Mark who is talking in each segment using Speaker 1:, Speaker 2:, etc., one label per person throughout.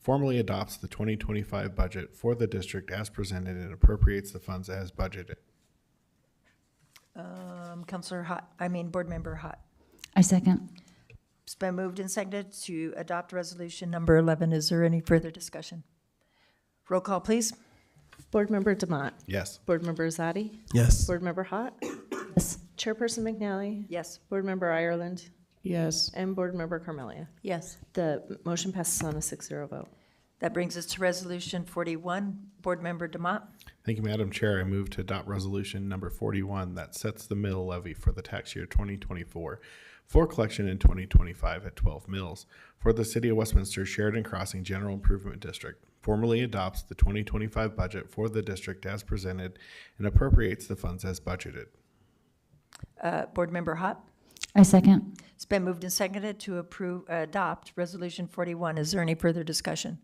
Speaker 1: formally adopts the 2025 budget for the district as presented and appropriates the funds as budgeted.
Speaker 2: Um, Counselor Hot, I mean, Board Member Hot.
Speaker 3: I second.
Speaker 2: It's been moved and seconded to adopt resolution number 11. Is there any further discussion? Roll call, please.
Speaker 4: Board Member Demott.
Speaker 1: Yes.
Speaker 4: Board Member Zadi.
Speaker 5: Yes.
Speaker 4: Board Member Hot.
Speaker 3: Yes.
Speaker 4: Chairperson McNally.
Speaker 2: Yes.
Speaker 4: Board Member Ireland.
Speaker 5: Yes.
Speaker 4: And Board Member Carmelia.
Speaker 2: Yes.
Speaker 4: The motion passes on a 6-0 vote.
Speaker 2: That brings us to resolution 41. Board Member Demott.
Speaker 1: Thank you, Madam Chair. I move to adopt resolution number 41 that sets the mill levy for the tax year 2024 for collection in 2025 at 12 mills for the City of Westminster Sheridan Crossing General Improvement District, formally adopts the 2025 budget for the district as presented and appropriates the funds as budgeted.
Speaker 2: Uh, Board Member Hot.
Speaker 3: I second.
Speaker 2: It's been moved and seconded to approve, uh, adopt resolution 41. Is there any further discussion?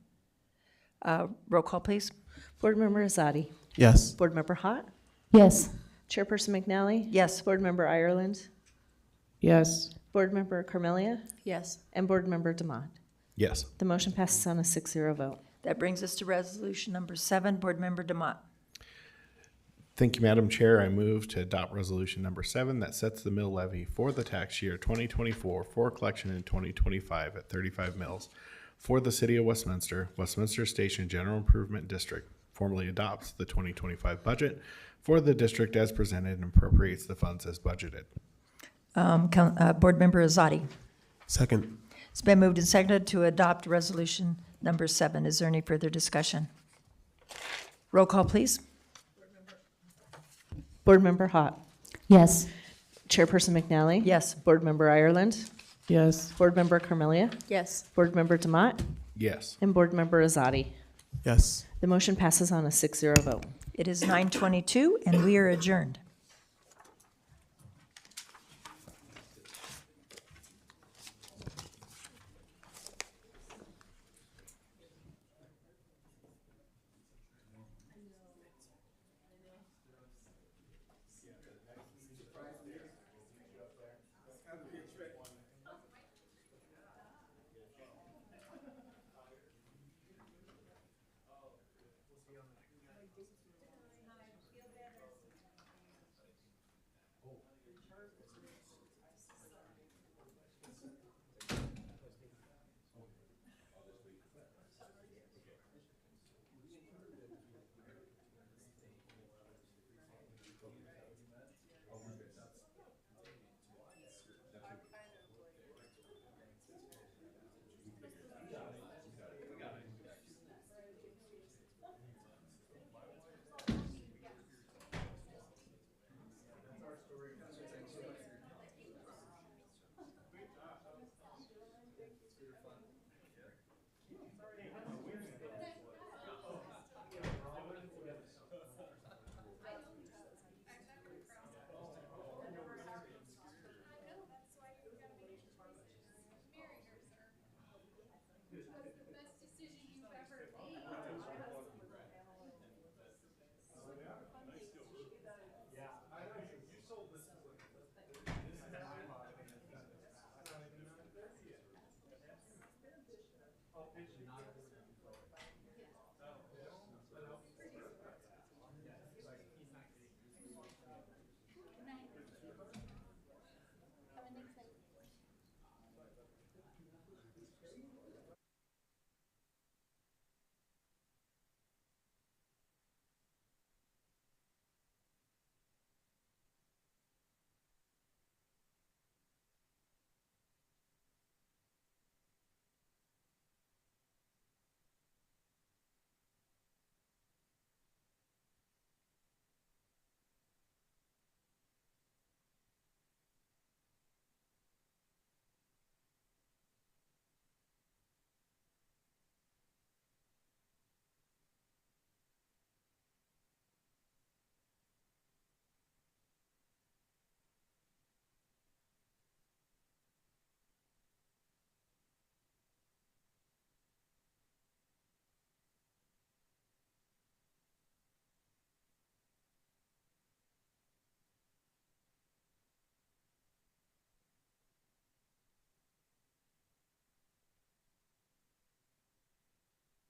Speaker 2: Uh, Roll call, please.
Speaker 4: Board Member Zadi.
Speaker 5: Yes.
Speaker 4: Board Member Hot.
Speaker 3: Yes.
Speaker 4: Chairperson McNally.
Speaker 2: Yes.
Speaker 4: Board Member Ireland.
Speaker 5: Yes.
Speaker 4: Board Member Carmelia.
Speaker 2: Yes.
Speaker 4: And Board Member Demott.
Speaker 1: Yes.
Speaker 4: The motion passes on a 6-0 vote.
Speaker 2: That brings us to resolution number 7. Board Member Demott.
Speaker 1: Thank you, Madam Chair. I move to adopt resolution number seven that sets the mill levy for the tax year twenty twenty-four for collection in twenty twenty-five at thirty-five mills for the city of Westminster, Westminster Station General Improvement District formally adopts the twenty twenty-five budget for the district as presented and appropriates the funds as budgeted.
Speaker 2: Um, Coun- uh, Board Member Azadi.
Speaker 5: Second.
Speaker 2: It's been moved and seconded to adopt resolution number seven. Is there any further discussion? Roll call, please.
Speaker 4: Board Member Hot.
Speaker 3: Yes.
Speaker 4: Chairperson McNally.
Speaker 2: Yes.
Speaker 4: Board Member Ireland.
Speaker 5: Yes.
Speaker 4: Board Member Carmelia.
Speaker 2: Yes.
Speaker 4: Board Member Demott.
Speaker 1: Yes.
Speaker 4: And Board Member Azadi.
Speaker 5: Yes.
Speaker 4: The motion passes on a 6-0 vote.
Speaker 2: It is 9:22, and we are adjourned.